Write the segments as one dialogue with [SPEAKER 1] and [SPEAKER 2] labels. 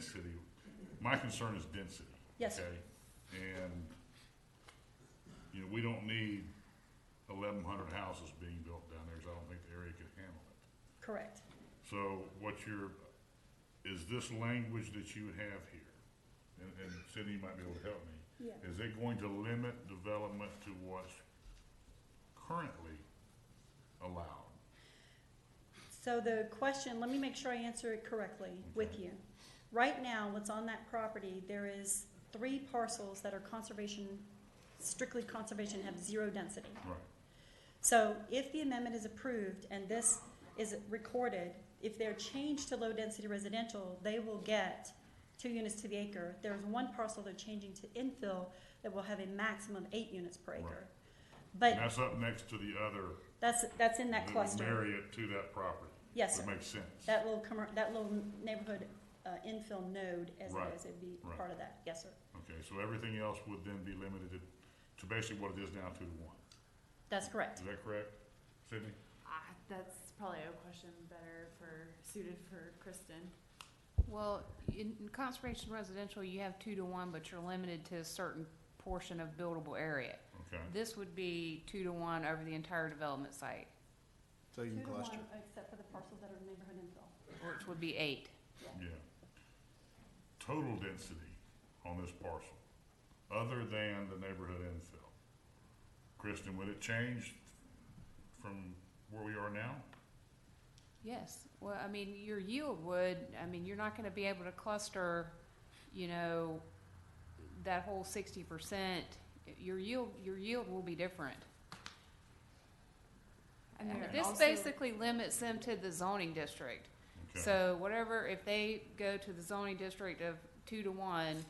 [SPEAKER 1] city, my concern is density.
[SPEAKER 2] Yes, sir.
[SPEAKER 1] okay? And, you know, we don't need eleven hundred houses being built down there, 'cause I don't think the area could handle it.
[SPEAKER 2] correct.
[SPEAKER 1] So what your, is this language that you have here, and, and Cindy might be able to help me,
[SPEAKER 2] Yeah.
[SPEAKER 1] is it going to limit development to what's currently allowed?
[SPEAKER 2] So the question, let me make sure I answer it correctly with you. Right now, what's on that property, there is three parcels that are conservation, strictly conservation, have zero density.
[SPEAKER 1] Right,
[SPEAKER 2] So if the amendment is approved and this is recorded, if they're changed to low-density residential, they will get two units to the acre. There's one parcel they're changing to infill that will have a maximum of eight units per acre.
[SPEAKER 1] and
[SPEAKER 2] But
[SPEAKER 1] that's up next to the other.
[SPEAKER 2] that's, that's in that
[SPEAKER 1] the
[SPEAKER 2] cluster.
[SPEAKER 1] Marriott to that property.
[SPEAKER 2] Yes,
[SPEAKER 1] That
[SPEAKER 2] sir.
[SPEAKER 1] makes sense.
[SPEAKER 2] That little commer- that little neighborhood, uh, infill node as
[SPEAKER 1] Right,
[SPEAKER 2] it is, it'd be
[SPEAKER 1] right.
[SPEAKER 2] part of that. Yes, sir.
[SPEAKER 1] Okay, so everything else would then be limited to- to basically what it is now, two to one.
[SPEAKER 2] That's correct.
[SPEAKER 1] Is that correct, Sydney?
[SPEAKER 3] Ah, that's probably a question better for, suited for Kristen.
[SPEAKER 4] Well, in in conservation residential, you have two to one, but you're limited to a certain portion of buildable area.
[SPEAKER 1] Okay,
[SPEAKER 4] This would be two to one over the entire development site,
[SPEAKER 5] So you can cluster.
[SPEAKER 2] except for the parcels that are neighborhood infill.
[SPEAKER 4] which would be eight.
[SPEAKER 1] yeah. Total density on this parcel, other than the neighborhood infill. Kristen, would it change from where we are now?
[SPEAKER 4] Yes, well, I mean, your yield would, I mean, you're not gonna be able to cluster, you know, that whole sixty percent. Your yield, your yield will be different.
[SPEAKER 3] And
[SPEAKER 4] I mean,
[SPEAKER 3] there
[SPEAKER 4] This
[SPEAKER 3] also-
[SPEAKER 4] basically limits them to the zoning district.
[SPEAKER 1] Okay.
[SPEAKER 4] So whatever, if they go to the zoning district of two to one,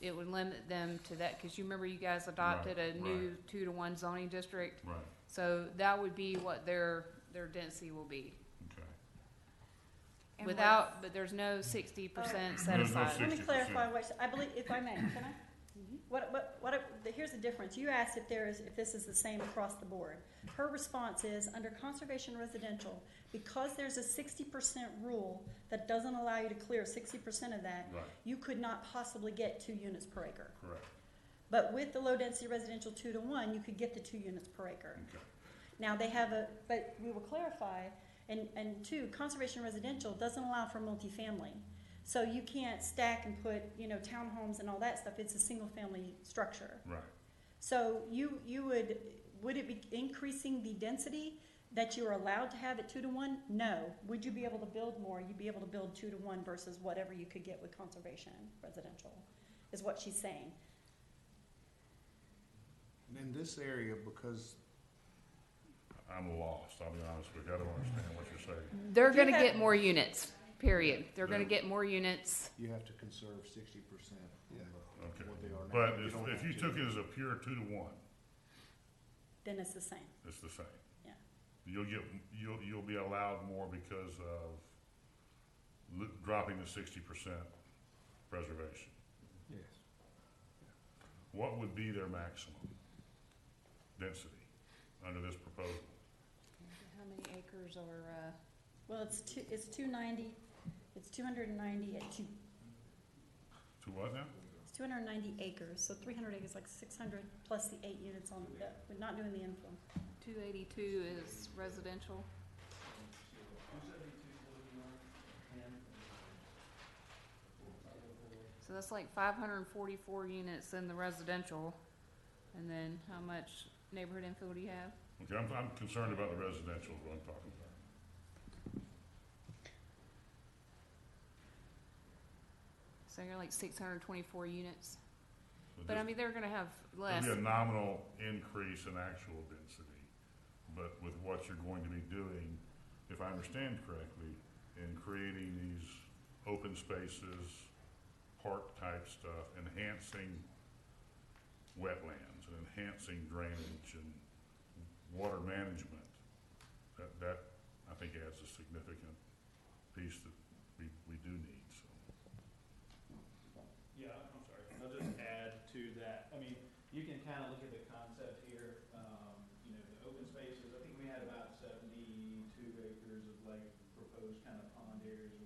[SPEAKER 4] it would limit them to that, cause you remember you guys adopted a
[SPEAKER 1] right.
[SPEAKER 4] new two to one zoning district?
[SPEAKER 1] Right,
[SPEAKER 4] So that would be what their, their density will be,
[SPEAKER 1] okay.
[SPEAKER 3] And
[SPEAKER 4] without, but there's no sixty percent set
[SPEAKER 1] There's no
[SPEAKER 4] aside.
[SPEAKER 2] Let me
[SPEAKER 1] 60%.
[SPEAKER 2] clarify what, I believe, if I may, can I? What, what, what, the- here's the difference. You asked if there is, if this is the same across the board. Her response is, under conservation residential, because there's a sixty percent rule that doesn't allow you to clear sixty percent of that,
[SPEAKER 1] Right.
[SPEAKER 2] you could not possibly get two units per acre.
[SPEAKER 1] Correct,
[SPEAKER 2] But with the low-density residential two to one, you could get the two units per acre.
[SPEAKER 1] okay.
[SPEAKER 2] Now, they have a, but we will clarify, and, and two, conservation residential doesn't allow for multifamily. So you can't stack and put, you know, townhomes and all that stuff, it's a single-family structure.
[SPEAKER 1] Right,
[SPEAKER 2] So you, you would, would it be increasing the density that you are allowed to have at two to one? No. Would you be able to build more? You'd be able to build two to one versus whatever you could get with conservation residential, is what she's saying.
[SPEAKER 5] In this area, because
[SPEAKER 1] I'm lost, I'll be honest with you, I don't understand what you're saying.
[SPEAKER 4] They're
[SPEAKER 2] If you
[SPEAKER 4] gonna
[SPEAKER 2] had-
[SPEAKER 4] get more units, period. They're gonna
[SPEAKER 1] They're-
[SPEAKER 4] get more units.
[SPEAKER 5] you have to conserve sixty percent
[SPEAKER 1] Okay,
[SPEAKER 5] of what they are now.
[SPEAKER 1] but
[SPEAKER 5] You
[SPEAKER 1] if,
[SPEAKER 5] don't
[SPEAKER 1] if
[SPEAKER 5] have
[SPEAKER 1] you
[SPEAKER 5] to.
[SPEAKER 1] took it as a pure two to one,
[SPEAKER 2] Then it's the same.
[SPEAKER 1] It's the same.
[SPEAKER 2] Yeah.
[SPEAKER 1] You'll get, you'll, you'll be allowed more because of l- dropping the sixty percent preservation.
[SPEAKER 5] Yes.
[SPEAKER 1] What would be their maximum density under this proposal?
[SPEAKER 4] How many acres are,
[SPEAKER 2] Well, it's two, it's two ninety, it's two hundred and ninety at two,
[SPEAKER 1] To what now?
[SPEAKER 2] it's two hundred and ninety acres, so three hundred acres, like six hundred plus the eight units on, the- we're not doing the infill.
[SPEAKER 4] two eighty-two is residential? So that's like five hundred and forty-four units in the residential, and then how much neighborhood infill do you have?
[SPEAKER 1] Okay, I'm, I'm concerned about the residential, is what I'm talking about.
[SPEAKER 4] So you're like six hundred and twenty-four units,
[SPEAKER 1] Would
[SPEAKER 4] but
[SPEAKER 1] this-
[SPEAKER 4] I mean, they're gonna have less.
[SPEAKER 1] There'll be a nominal increase in actual density, but with what you're going to be doing, if I understand correctly, in creating these open spaces, park-type stuff, enhancing wetlands, and enhancing drainage and water management, that, that, I think adds a significant piece that we, we do need, so.
[SPEAKER 6] Yeah, I'm sorry. I'll just add to that. I mean, you can kind of look at the concept here, um, you know, the open spaces. I think we had about seventy-two acres of like proposed kind of pond areas and
[SPEAKER 1] Mm-hmm.